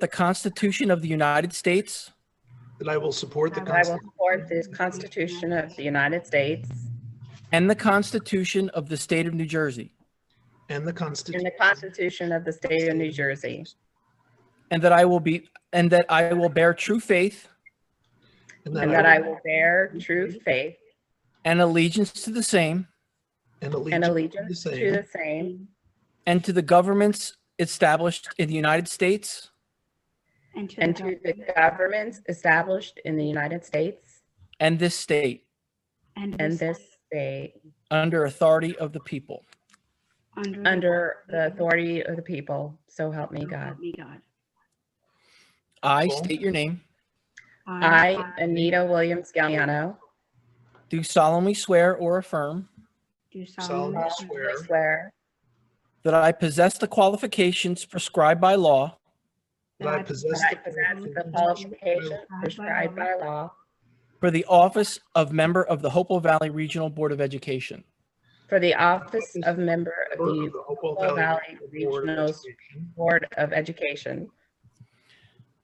the Constitution of the United States that I will support the and I will Constitution support the Constitution of the United States and the Constitution of the State of New Jersey, and the and Constitution the Constitution of the State of New Jersey, and that I will be, and that I will bear true faith and that I will bear true faith and allegiance to the same and and allegiance allegiance to the same and to the governments established in the United States And to and the to the government governments established in the United States and this state and this state under authority of the people. under the under the authority of the people, so help me power God. of Me God. I Cool. state your name, I, Anita Williams Galliano, do solemnly swear or affirm Do solemnly solemnly swear swear swear that I possess the qualifications prescribed by law that I possess that I possess the qualifications prescribed by law for the office of member of the Hopewell Valley Regional Board of Education, for the office of member the of the Hopewell Hopewell Valley Valley Board of Regional Education, Board of Education,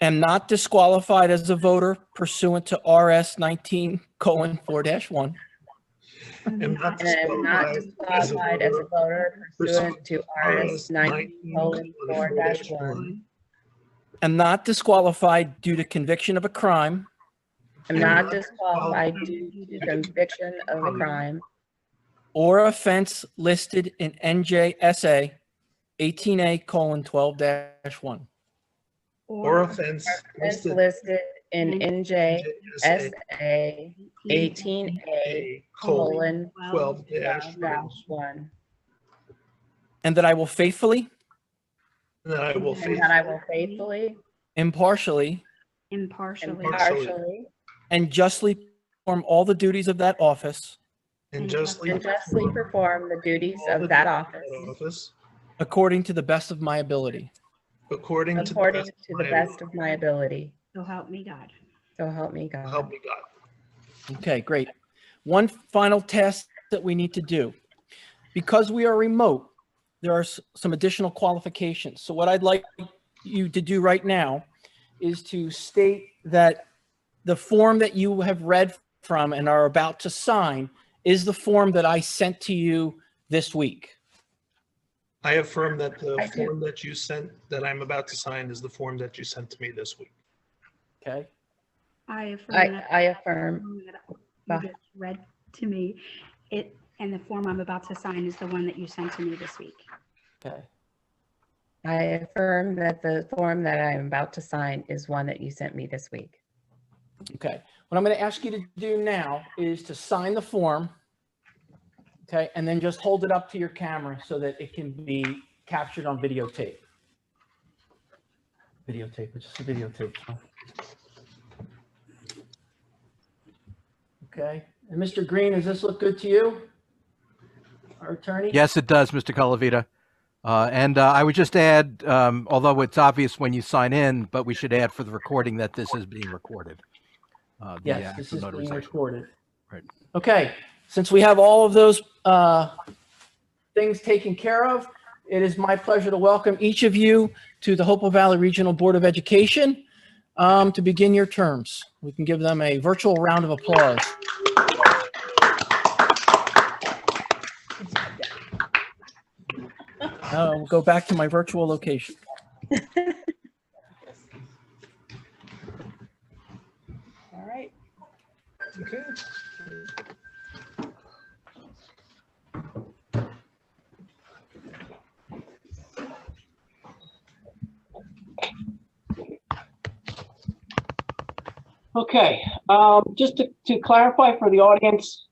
am not disqualified as a voter pursuant to RS 19:4-1, am not and am not disqualified as a voter pursuant to RS RS 19 19:4-1, one am not disqualified due to conviction of a crime Am not disqualified due to conviction of a crime or offense listed in NJSA 18A:12-1. Or offense as listed listed in NJSA 18A eighteen A colon colon twelve dash one, dash one. And that I will faithfully, and that I will And that I faithfully will faithfully, impartially, impartially impartially, and justly perform all the duties of that office and justly and justly perform perform the duties all the of that duties office that office according to the best of my ability. according to the according best to of the my best of my ability. so help me God. So help me ability. Help God. me God. Okay, great. One final test that we need to do. Because we are remote, there are s- some additional qualifications. So what I'd like you to do right now is to state that the form that you have read from and are about to sign is the form that I sent to you this week. I affirm that I the do. form that you sent, that I'm about to sign is the form that you sent to me this week. Okay? I affirm. I, that- I affirm that You just read to me, it, and the form I'm about to sign is the one that you sent to me this week. Okay. I affirm that the form that I am about to sign is one that you sent me this week. Okay. What I'm going to ask you to do now is to sign the form. Okay, and then just hold it up to your camera so that it can be captured on videotape. Videotape, it's just a videotape. huh? Okay, and Mr. Green, does this look good to you? Our attorney? Yes, it does, Mr. Colavita. Uh, and uh, I would just add, um, although it's obvious when you sign in, but we should add for the recording that this is being recorded. Uh, the, uh, Yes, this actual is being notarization. recorded. Right. Okay, since we have all of those uh, things taken care of, it is my pleasure to welcome each of you to the Hopewell Valley Regional Board of Education um, to begin your terms. We can give them a virtual round of applause. Uh, We'll Go back to my virtual location. All right. Okay. Okay, um, just to, to clarify for the audience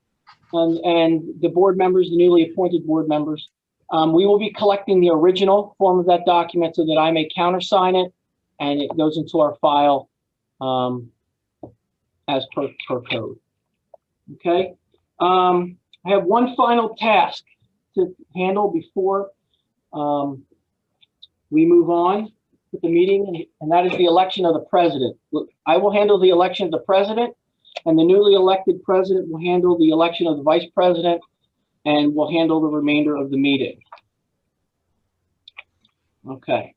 and, and the board members, the newly appointed board members, um, we will be collecting the original form of that document so that I may countersign it and it goes into our file, um, as per, per code. Okay, um, I have one final task to handle before, um, we move on with the meeting, and that is the election of the president. Look, I will handle the election of the president, and the newly elected president will handle the election of the vice president, and will handle the remainder of the meeting. Okay.